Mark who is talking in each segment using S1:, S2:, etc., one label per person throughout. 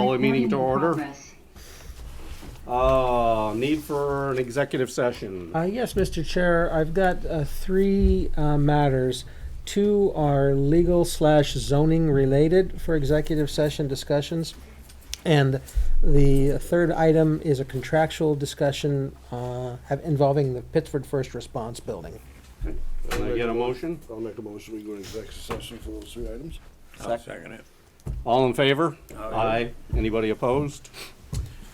S1: Call a meeting to order. Uh, need for an executive session.
S2: Uh, yes, Mr. Chair, I've got uh, three uh, matters. Two are legal slash zoning related for executive session discussions. And the third item is a contractual discussion uh, have- involving the Pittsford First Response Building.
S1: Can I get a motion?
S3: I'll make a motion, we go into executive session for those three items.
S4: Second it.
S1: All in favor? Aye. Anybody opposed?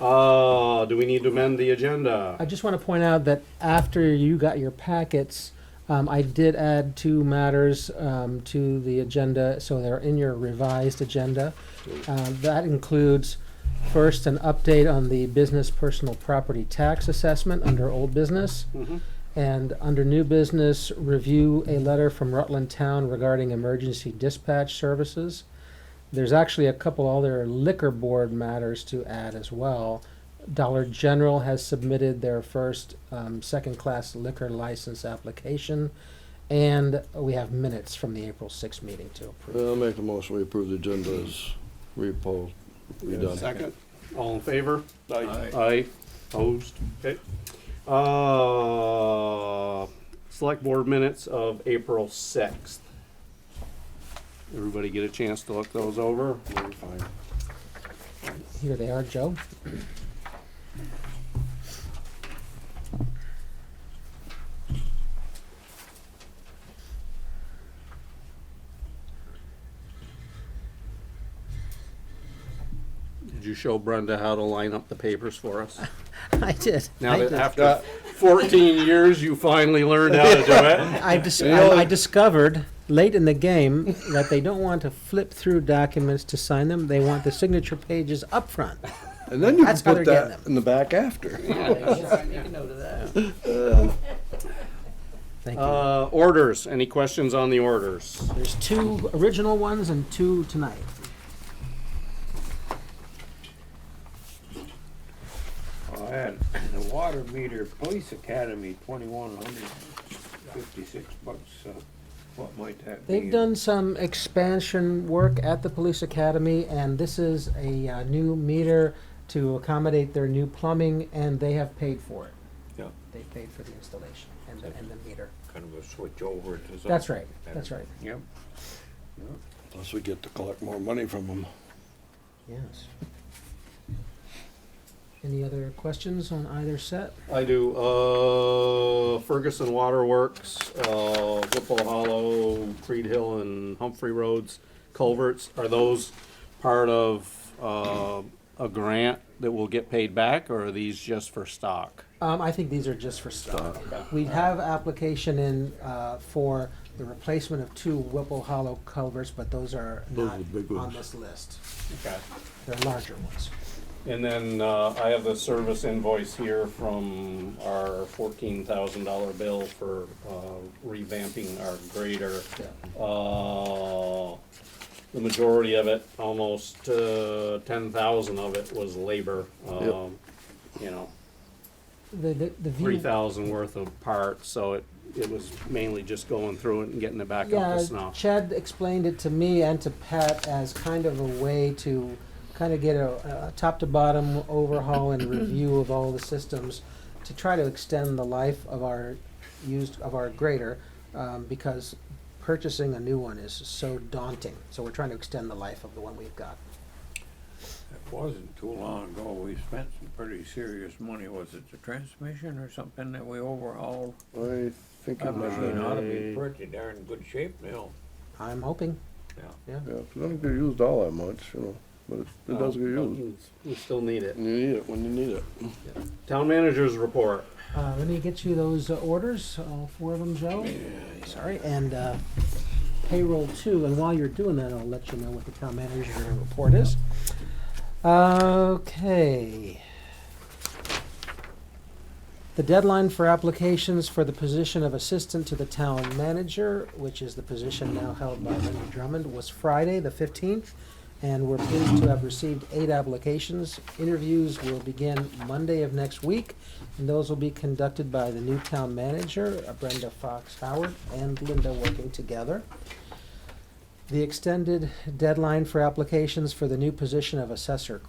S1: Uh, do we need to amend the
S2: I
S1: agenda?
S2: just want to point out that after you got your packets, um, I did add two matters um, to the agenda, so they're in your revised agenda. Uh, that includes first an update on the business personal property tax assessment under old business,
S1: Mhm.
S2: and under new business, review a letter from Rutland Town regarding emergency dispatch services. There's actually a couple other liquor board matters to add as well. Dollar General has submitted their first um, second class liquor license application. And we have minutes from the April 6th meeting to approve.
S3: Uh, I'll make a motion, we approve the agenda as repo, redone.
S1: Second? All in favor?
S3: Aye.
S1: Aye. Opposed? Okay. Uh, select board minutes of April sixth. Everybody get a chance to look those over?
S2: Here they are, Joe.
S1: Did you show Brenda how to line up the papers for us?
S2: I did.
S1: Now
S2: I
S1: that
S2: did.
S1: after 14 years, you finally learned how to do it.
S2: I, dis- I, I discovered late in the game that they don't want to flip through documents to sign them. They want the signature pages up front.
S3: And then you can
S2: That's how
S3: put
S2: they're getting
S3: that in the back after.
S2: Thank you.
S1: Uh, orders. Any questions on the orders?
S2: There's two original ones and two tonight.
S4: All right, the water meter, police academy, twenty-one hundred fifty-six bucks, so what might that be?
S2: They've done some expansion work at the police academy, and this is a uh, new meter to accommodate their new plumbing, and they have paid for it.
S4: Yeah.
S2: They paid for the installation and the, and the meter.
S4: Kind of a switch over to something.
S2: That's right, that's right.
S4: Yep.
S3: Plus we get to collect more money from them.
S2: Yes. Any other questions on either set?
S1: I do. Uh, Ferguson Waterworks, uh, Whipple Hollow, Creed Hill, and Humphrey Roads culverts. Are those part of uh, a grant that will get paid back, or are these just for stock?
S2: Um, I think these are just for stock.
S3: Uh-huh.
S2: We have application in, uh, for the replacement of two Whipple Hollow culverts, but those are
S3: Those
S2: not
S3: are the big
S2: on
S3: ones.
S2: this list.
S1: Okay.
S2: They're larger ones.
S1: And then uh, I have the service invoice here from our fourteen thousand dollar bill for uh, revamping our grader. Uh, The majority of it, almost uh, ten thousand of it was labor. um, You know,
S2: The, the, the
S1: three
S2: view,
S1: thousand worth of parts, so it, it was mainly just going through it and getting it back up to
S2: yeah,
S1: snuff.
S2: Chad explained it to me and to Pat as kind of a way to kind of get a, a top to bottom overhaul and review of all the systems to try to extend the life of our used, of our grader, um, because purchasing a new one is so daunting. So we're trying to extend the life of the one we've got.
S4: It wasn't too long ago, we spent some pretty serious money, was it the transmission or something that we overhauled?
S3: I think it
S4: That
S3: was,
S4: machine ought to be
S1: Right.
S4: pretty darn good shape now,
S2: I'm hoping.
S4: yeah.
S3: yeah, it doesn't get used all that much, you know, but it- it does get
S2: Oh.
S3: used.
S1: We still need it.
S3: You need it when you need it.
S1: Town managers report.
S2: Uh, let me get you those uh, orders, all four of them, Joe. Sorry, and uh, payroll too. And while you're doing that, I'll let you know what the town manager report is. Okay. The deadline for applications for the position of assistant to the town manager, which is the position now held by Linda Drummond, was Friday, the fifteenth. And we're pleased to have received eight applications. Interviews will begin Monday of next week. And those will be conducted by the new town manager, uh, Brenda Fox Howard, and Linda working together. The extended deadline for applications for the new position of assessor